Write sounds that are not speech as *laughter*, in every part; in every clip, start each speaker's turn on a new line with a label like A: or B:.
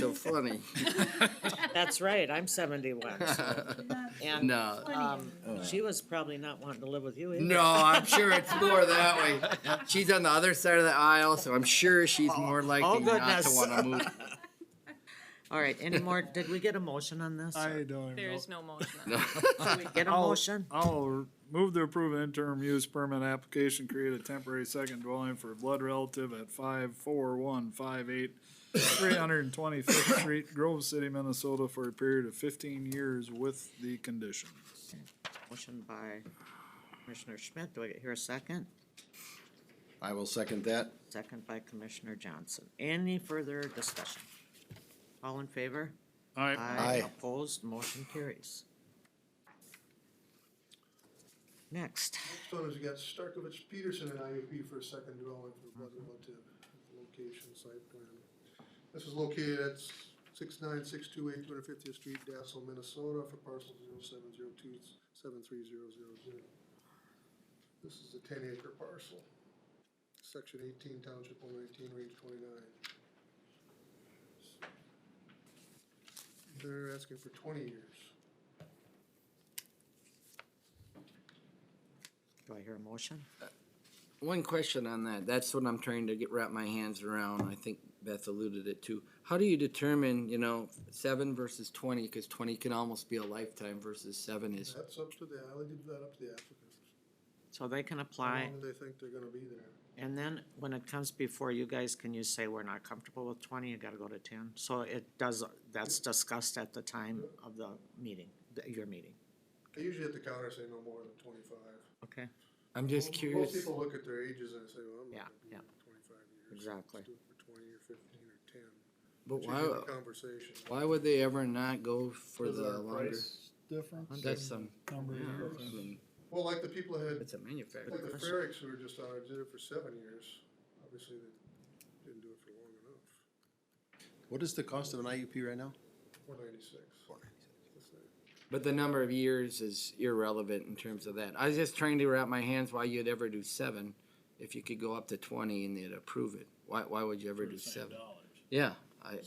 A: so funny. *laughs*
B: That's right, I'm seventy-one.
C: *laughs*
B: And
A: No,
B: um,
C: Oh.
B: she was probably not wanting to live with you either.
A: no, I'm sure it's more that way. She's on the other side of the aisle, so I'm sure she's more
B: oh,
A: likely not to
B: goodness.
A: wanna move.
B: *laughs* All right, any more, did we get a motion on this?
D: I don't
E: There
D: know.
E: is no motion on that.
B: Get a
D: I'll-
B: motion?
D: I'll r- move to approve an interim use permit application, create a temporary second dwelling for a blood relative at five four one five eight three hundred and twenty-fifth Street, Grove City, Minnesota, for a period of fifteen years with the condition.
B: Motion by Commissioner Schmidt, do I hear a second?
C: I will second that.
B: Second by Commissioner Johnson. Any further discussion? All in favor?
D: Aye.
B: Aye.
C: Aye.
B: Opposed, motion carries. Next,
F: Next one is we got Starkovich Peterson and IUP for a second dwelling for Brother Relative, location, site plan. This is located at six nine six two eight two hundred fiftieth street, Dassel, Minnesota, for parcel zero seven zero two seven three zero zero zero. This is a ten acre parcel, section eighteen, township one nineteen, range twenty-nine. They're asking for twenty years.
B: do I hear a motion?
A: One question on that. That's what I'm trying to get wrap my hands around. I think Beth alluded it to. How do you determine, you know, seven versus twenty? Because twenty can almost be a lifetime versus seven is.
F: That's up to the, I will give that up to the applicants.
B: So they can
F: How
B: apply,
F: long do they think they're gonna be there?
B: and then when it comes before you guys, can you say we're not comfortable with twenty, you gotta go to ten? So it does, that's discussed at the time of the meeting, the- your meeting,
F: I usually at the counter say no more than twenty-five.
B: okay?
A: I'm just
F: Most-
A: curious.
F: Most people look at their ages and say, well, I'm
B: Yeah,
F: not gonna be
B: yeah.
F: here for twenty-five years.
B: Exactly.
F: Let's do it for twenty or fifteen or ten.
A: But
F: It's
A: why,
F: usually the Conversation.
A: why would they ever not go for the longer?
D: Difference?
A: That's some,
D: Number of years.
F: Well, like the people that had,
A: it's a
F: like the
A: manufacturer.
F: Ferricks who were just on, it, did it for seven years, obviously they didn't do it for long enough.
C: What is the cost of an IUP right now?
F: Four ninety-six. That's it.
A: But the number of years is irrelevant in terms of that. I was just trying to wrap my hands why you'd ever do seven if you could go up to twenty and they'd approve it. Why, why would you ever do seven? Yeah, I,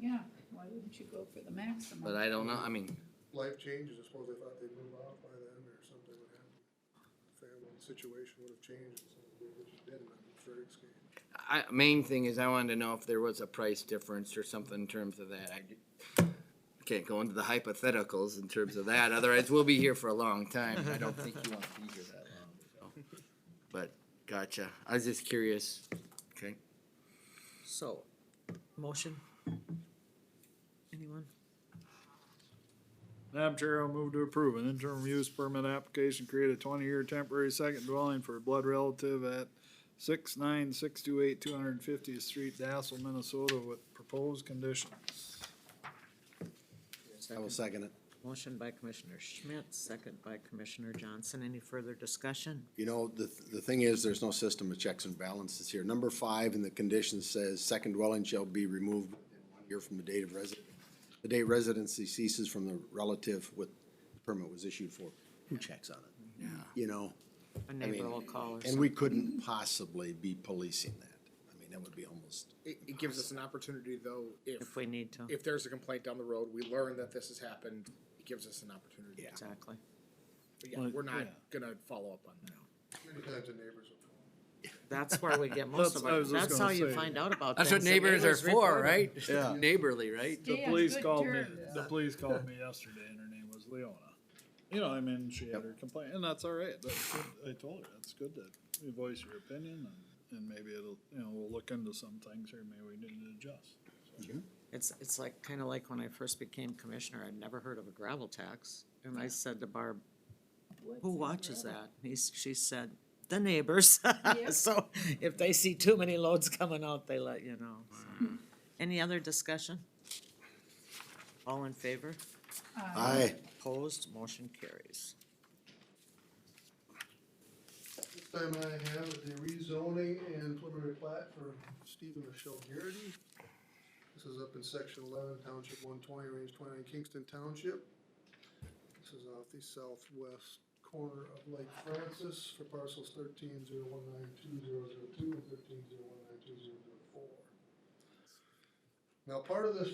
G: Yeah, why wouldn't you go for the maximum?
A: but I don't know, I mean,
F: Life changes, I suppose they thought they'd move out by then or something would happen. Family situation would have changed, so they just didn't, on the Ferricks case.
A: I, main thing is I wanted to know if there was a price difference or something in terms of that. I d- Can't go into the hypotheticals in terms of that, otherwise we'll be here for a long time. I don't think you want to be here that long. so. But, gotcha. I was just curious. Okay.
B: So, motion? Anyone?
D: Madam Chair, I'll move to approve an interim use permit application, create a twenty-year temporary second dwelling for a blood relative at six nine six two eight two hundred and fiftieth Street, Dassel, Minnesota, with proposed condition.
C: I will second it.
B: Motion by Commissioner Schmidt, second by Commissioner Johnson. Any further discussion?
C: You know, the, the thing is, there's no system of checks and balances here. Number five in the condition says, second dwelling shall be removed within one year from the date of resident, the date residency ceases from the relative with the permit was issued for. Who checks on it? Yeah. You know,
B: A neighbor will call or
C: and
B: something.
C: we couldn't possibly be policing that. I mean, that would be almost,
H: It, it gives us an opportunity, though, if,
B: If we need to,
H: if there's a complaint down the road, we learn that this has happened, it gives us an opportunity.
C: Yeah.
B: exactly.
H: But yeah, we're not gonna follow up on that.
F: Many times the neighbors will call.
B: That's where we get
D: *laughs*
B: most
D: That's-
B: of
D: I
B: our,
D: was just
B: that's how
D: gonna
B: you
D: say.
B: find out about things.
A: That's what
B: The
A: neighbors are for,
B: report it.
A: right?
C: Yeah.
A: Neighborly, right?
D: The
G: Stay on
D: police
G: good
D: called me,
G: terms.
D: the police called me yesterday and her name was Leona. You know, I mean, she had her complaint and that's all right. That's good. I told her, that's good that you voice your opinion and, and maybe it'll, you know, we'll look into some things or maybe we need to adjust.
B: It's, it's like, kinda like when I first became commissioner, I'd never heard of a gravel tax. And I said to Barb,
G: What's
B: who
G: in
B: watches
G: red?
B: that? He's, she said, the neighbors. *laughs*
G: Yep.
B: So if they see too many loads coming out, they let you know. so. Any other discussion? All in favor?
G: Uh,
C: aye.
B: Opposed, motion carries.
F: This time I have the rezoning and preliminary plat for Stephen Michelle Garrity. This is up in section eleven, township one twenty, range twenty-nine, Kingston Township. This is off the southwest corner of Lake Francis for parcels thirteen zero one nine two zero zero two and thirteen zero one nine two zero zero four. Now, part of this